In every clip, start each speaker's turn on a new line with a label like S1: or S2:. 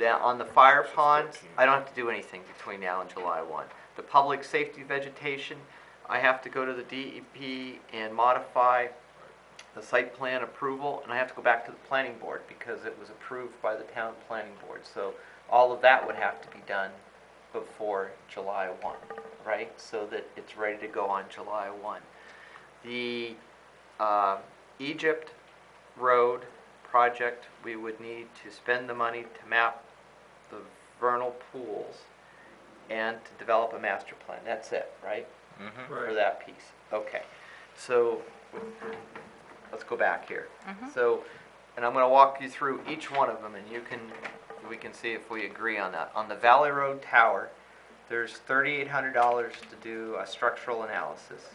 S1: Now, on the fire ponds, I don't have to do anything between now and July one. The public safety vegetation, I have to go to the DEP and modify the site plan approval, and I have to go back to the planning board because it was approved by the town planning board. So all of that would have to be done before July one, right? So that it's ready to go on July one. The, um, Egypt Road project, we would need to spend the money to map the vernal pools and to develop a master plan. That's it, right?
S2: Mhm.
S1: For
S3: Right.
S1: that piece. Okay. So, let's go back here. So, and I'm gonna walk you through each one of them and you can, we can see if we agree on that. On the Valley Road Tower, there's thirty-eight hundred dollars to do a structural analysis.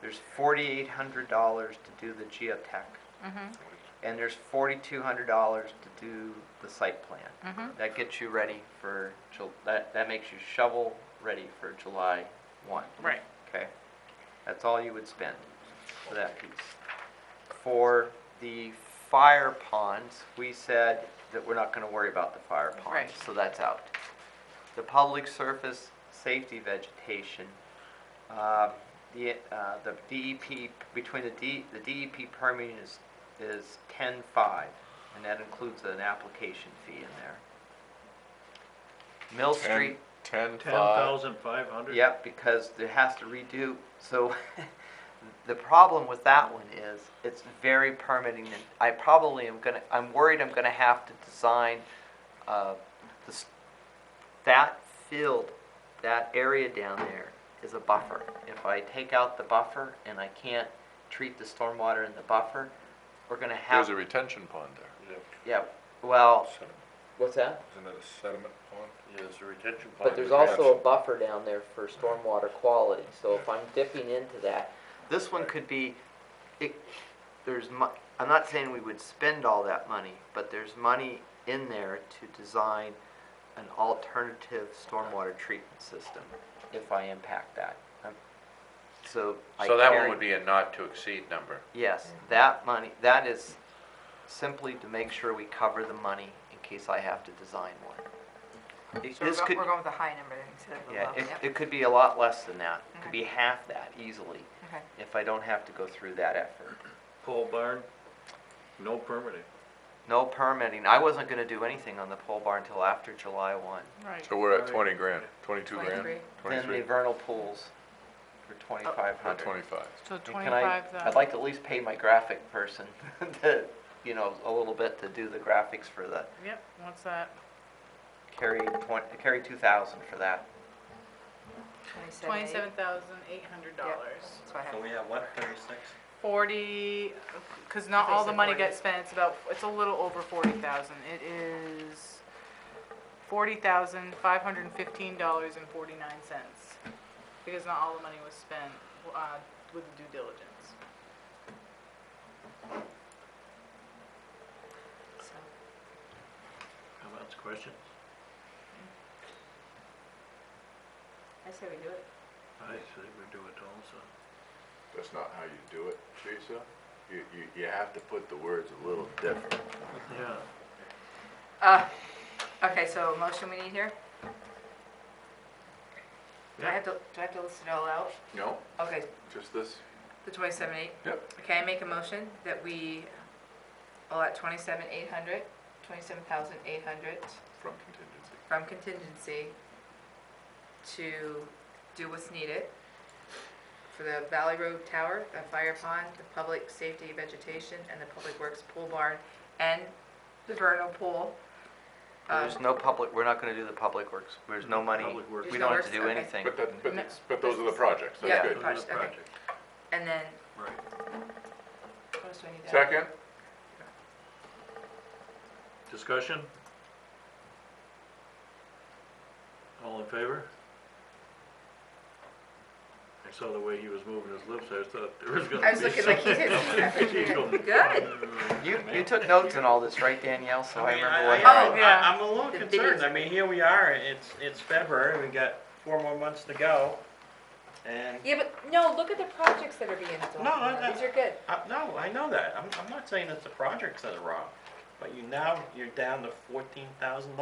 S1: There's forty-eight hundred dollars to do the geotech. And there's forty-two hundred dollars to do the site plan. That gets you ready for, Ju- that, that makes you shovel ready for July one.
S4: Right.
S1: Okay? That's all you would spend for that piece. For the fire ponds, we said that we're not gonna worry about the fire ponds,
S4: Right.
S1: so that's out. The public surface safety vegetation, um, the, uh, the DEP, between the D, the DEP permitting is, is ten-five, and that includes an application fee in there. Mill
S2: Ten-
S1: Street.
S2: Ten,
S3: Ten
S2: five,
S3: thousand five hundred?
S1: Yep, because it has to redo, so the problem with that one is, it's very permitting, and I probably am gonna, I'm worried I'm gonna have to design, uh, this, that field, that area down there is a buffer. If I take out the buffer and I can't treat the stormwater in the buffer, we're gonna have.
S2: there's a retention pond there.
S1: Yeah, well,
S5: Sediment.
S1: what's that?
S5: Isn't it a sediment pond?
S6: Yeah, there's a retention pond.
S1: But there's also a buffer down there for stormwater quality, so if I'm dipping into that, this one could be, it, there's mu, I'm not saying we would spend all that money, but there's money in there to design an alternative stormwater treatment system, if I impact that. Um, So I
S6: So that
S1: carry-
S6: one would be a not to exceed number.
S1: Yes, that money, that is simply to make sure we cover the money in case I have to design one. It-
S4: So we're
S1: this
S4: go-
S1: could-
S4: we're going with a high number then instead of a
S1: yeah,
S4: low,
S1: it,
S4: yep,
S1: it could be a lot less than that. It could
S4: Okay.
S1: be half that easily,
S4: okay.
S1: if I don't have to go through that effort.
S3: Pole barn, no permitting.
S1: No permitting. I wasn't gonna do anything on the pole barn until after July one.
S4: Right.
S2: So we're at
S3: Right.
S2: twenty grand, twenty-two grand,
S4: 23.
S1: Then the
S2: twenty-three,
S1: vernal pools for twenty-five
S2: or
S1: hundred.
S2: twenty-five.
S7: So
S1: Can I,
S7: twenty-five
S1: I'd like to at least pay my graphic person to, you know, a little bit to do the graphics for the,
S7: Yep, what's that?
S1: carry twenty, carry two thousand for that.
S7: Twenty-seven thousand eight hundred dollars.
S4: That's what I have.
S3: we have what, thirty-six?
S7: Forty, because not
S4: They
S7: all the
S4: said
S7: money
S4: 40.
S7: gets spent, it's about, it's a little over forty thousand. It is forty thousand five hundred and fifteen dollars and forty-nine cents. Because not all the money was spent, uh, with due diligence.
S4: So,
S3: Comments, questions?
S4: I say we do it.
S3: I say we do it also.
S5: That's not how you do it, Teresa. You, you, you have to put the words a little different.
S3: Yeah.
S4: Uh, okay, so motion we need here? Do I
S3: Yeah.
S4: have to, do I have to list it all out?
S5: No,
S4: Okay,
S5: just this?
S4: the twenty-seven eight.
S5: Yep.
S4: Okay, I make a motion that we, all at twenty-seven eight hundred, twenty-seven thousand eight hundred
S5: From contingency.
S4: from contingency to do what's needed for the Valley Road Tower, the fire pond, the public safety vegetation, and the public works pool barn, and the vernal pool. Um,
S1: There's no public, we're not gonna do the public works. There's no money.
S3: Public works.
S1: We
S4: There's no
S1: don't have to
S4: works,
S1: do
S4: okay.
S1: anything.
S5: But that, but
S7: No.
S5: it's, but those are the projects,
S4: Yeah.
S5: that's
S3: Those
S5: good.
S3: are
S4: Project,
S3: the
S4: okay.
S3: projects,
S4: And then,
S3: right.
S4: what else do I need to add?
S5: Second?
S3: Discussion? All in favor? I saw the way he was moving his lips, I thought there was gonna be.
S4: I was looking like he did.
S3: something.
S4: Good.
S1: You, you took notes on all this, right, Danielle? So I
S8: I mean,
S1: remember
S8: I,
S1: what
S4: Oh,
S8: I,
S1: happened.
S7: yeah.
S8: I, I'm a little
S4: The
S8: concerned.
S4: biggest-
S8: I mean, here we are. It's it's February. We've got four more months to go. And
S4: Yeah, but, no, look at the projects that are being done.
S8: No, I- I-
S4: These are good.
S8: uh, no, I know that. I'm, I'm not saying it's the projects that are wrong, but you now you're down to fourteen thousand